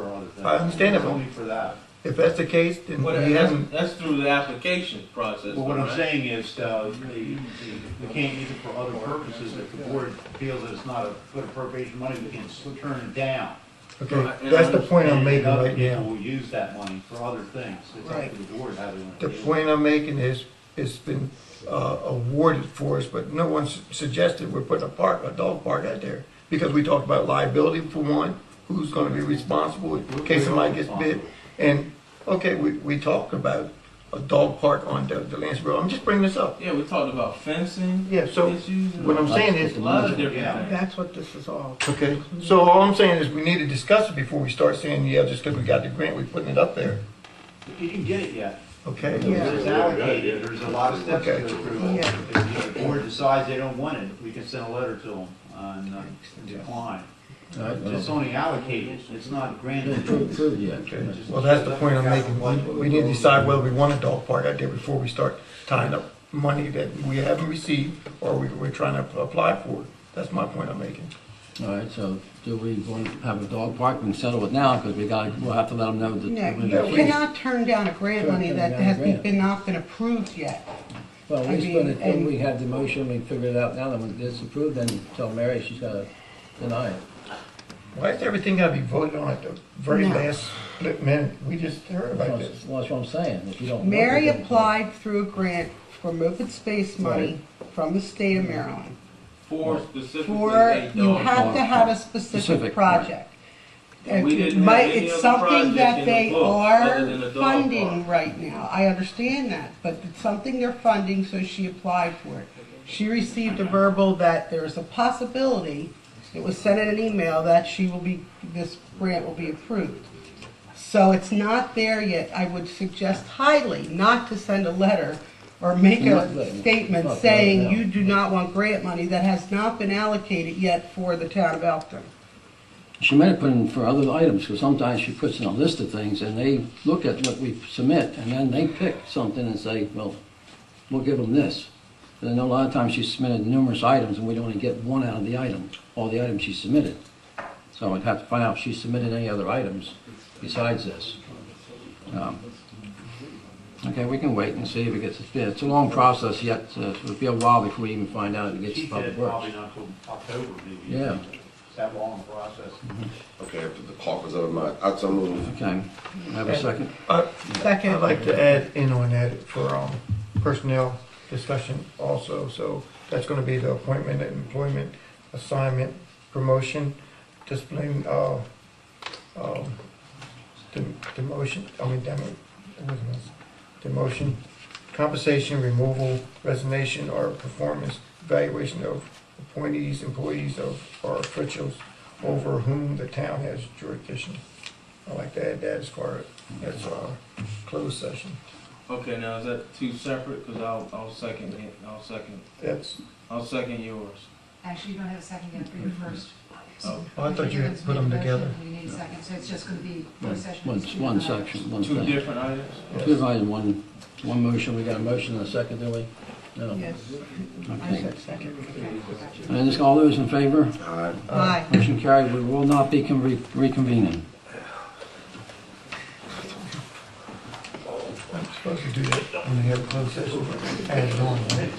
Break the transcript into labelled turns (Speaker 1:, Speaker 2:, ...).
Speaker 1: that.
Speaker 2: I understand it, but-
Speaker 1: Only for that.
Speaker 2: If that's the case, then
Speaker 3: What,
Speaker 2: he
Speaker 3: that's,
Speaker 2: hasn't,
Speaker 3: that's through the application process.
Speaker 1: But what
Speaker 3: though,
Speaker 1: I'm
Speaker 3: right?
Speaker 1: saying is, uh, they, they can't use it for other purposes if the board feels that it's not a good appropriation money, we can s- turn it down.
Speaker 2: okay, that's the point I'm making
Speaker 1: And
Speaker 2: right
Speaker 1: Other people
Speaker 2: now.
Speaker 1: will use that money for other things, it's up
Speaker 2: Right.
Speaker 1: to the board how they want to
Speaker 2: The
Speaker 1: use it.
Speaker 2: point I'm making is, it's been, uh, awarded for us, but no one s- suggested we're putting a park, a dog park out there. Because we talked about liability for one, who's gonna be responsible in case somebody gets bit. And, okay, we, we talked about a dog park on the, the Lance Road, I'm just bringing this up.
Speaker 3: Yeah, we talked about fencing.
Speaker 2: Yeah, so
Speaker 3: Issues. and
Speaker 2: What I'm saying
Speaker 3: A
Speaker 2: is,
Speaker 3: lot of different
Speaker 1: Yeah.
Speaker 3: things.
Speaker 4: That's what this is all.
Speaker 2: Okay, so all I'm saying is we need to discuss it before we start saying, yeah, just because we got the grant, we're putting it up there,
Speaker 1: You didn't get it yet.
Speaker 2: okay?
Speaker 4: Yeah.
Speaker 1: It's allocated, there's a lot of steps to
Speaker 2: Okay.
Speaker 1: go through.
Speaker 4: Yeah.
Speaker 1: If the board decides they don't want it, we can send a letter to them on uh, decline. It's only allocated, it's not granted.
Speaker 2: Okay. Well, that's the point I'm making, We- we need to decide whether we want a dog park out there before we start tying up money that we haven't received or we, we're trying to apply for. That's my point I'm making.
Speaker 5: All right, so do we want to have a dog park? We can settle it now because we got, we'll have to let them know that.
Speaker 4: No,
Speaker 5: we're
Speaker 4: you
Speaker 5: gonna-
Speaker 4: cannot turn down a grant money that hasn't been, not been approved yet.
Speaker 5: Well,
Speaker 4: I
Speaker 5: at least when
Speaker 4: mean,
Speaker 5: it- when
Speaker 4: and-
Speaker 5: we have the motion, we figure it out now, then when it's approved, then tell Mary she's got to deny it.
Speaker 2: Why is everything gotta be voted on at the very
Speaker 4: No.
Speaker 2: last split minute? We just heard about
Speaker 5: Well,
Speaker 2: this.
Speaker 5: That's what I'm saying, if you don't. want it,
Speaker 4: Mary
Speaker 5: then-
Speaker 4: applied through a grant for open space money from the state of Maryland.
Speaker 3: For specifically
Speaker 4: For,
Speaker 3: a
Speaker 4: you
Speaker 3: dog
Speaker 4: have
Speaker 3: park.
Speaker 4: to have a
Speaker 5: Specific,
Speaker 4: specific
Speaker 5: right.
Speaker 4: project. And
Speaker 3: We didn't have
Speaker 4: might-
Speaker 3: any
Speaker 4: it's
Speaker 3: other
Speaker 4: something
Speaker 3: project
Speaker 4: that
Speaker 3: in the
Speaker 4: they
Speaker 3: book other
Speaker 4: are
Speaker 3: than a dog
Speaker 4: funding
Speaker 3: park.
Speaker 4: right now, I understand that, but it's something they're funding, so she applied for it. She received a verbal that there is a possibility, it was sent in an email, that she will be, this grant will be approved. So it's not there yet, I would suggest highly not to send a letter or make
Speaker 5: Not letting-
Speaker 4: a statement
Speaker 5: not
Speaker 4: saying
Speaker 5: letting
Speaker 4: you do not want grant money that has not been allocated yet for the town of Elkton.
Speaker 5: She might have put in for other items, because sometimes she puts in a list of things, and they look at what we submit, and then they pick something and say, well, we'll give them this. And I know a lot of times she submitted numerous items, and we'd only get one out of the item, all the items she submitted. So I'd have to find out if she submitted any other items besides this. Um, Okay, we can wait and see if it gets, yeah, it's a long process yet, uh, it'll be a while before we even find out if it gets
Speaker 1: She
Speaker 5: to
Speaker 1: said
Speaker 5: public works.
Speaker 1: probably not till October, maybe.
Speaker 5: Yeah.
Speaker 1: It's that long process.
Speaker 6: Okay, after the park was over my, I so moved.
Speaker 5: Okay, have a second?
Speaker 2: I,
Speaker 4: Second.
Speaker 2: Uh, I'd like to add in on that for, um, personnel discussion also, so that's gonna be the appointment, employment, assignment, promotion, discipline, uh, um, dem- demotion, I mean, demo, what was it? demotion, compensation, removal, resignation, or performance evaluation of appointees, employees of, or officials over whom the town has jurisdiction. I'd like to add that as far as, uh, closed session.
Speaker 3: Okay, now is that two separate? Because I'll, I'll second it. I'll second.
Speaker 2: That's,
Speaker 3: I'll second yours.
Speaker 7: Actually, you don't have a second yet, but you're first.
Speaker 3: Oh,
Speaker 2: oh, I thought you had put them together.
Speaker 7: We need a second, so it's just gonna be
Speaker 5: One,
Speaker 7: one session. uh,
Speaker 5: one one section, one
Speaker 3: Two
Speaker 5: thing.
Speaker 3: different items.
Speaker 5: Two items, one, one motion, we got a motion and a second, do we? No.
Speaker 4: Yes, I
Speaker 5: Okay.
Speaker 4: said second.
Speaker 5: And is all those in favor?
Speaker 6: Aye.
Speaker 4: Aye.
Speaker 5: Motion carried, we will not be con- re- reconvening.
Speaker 2: I'm supposed to do that when they have a closed session, add it on, right?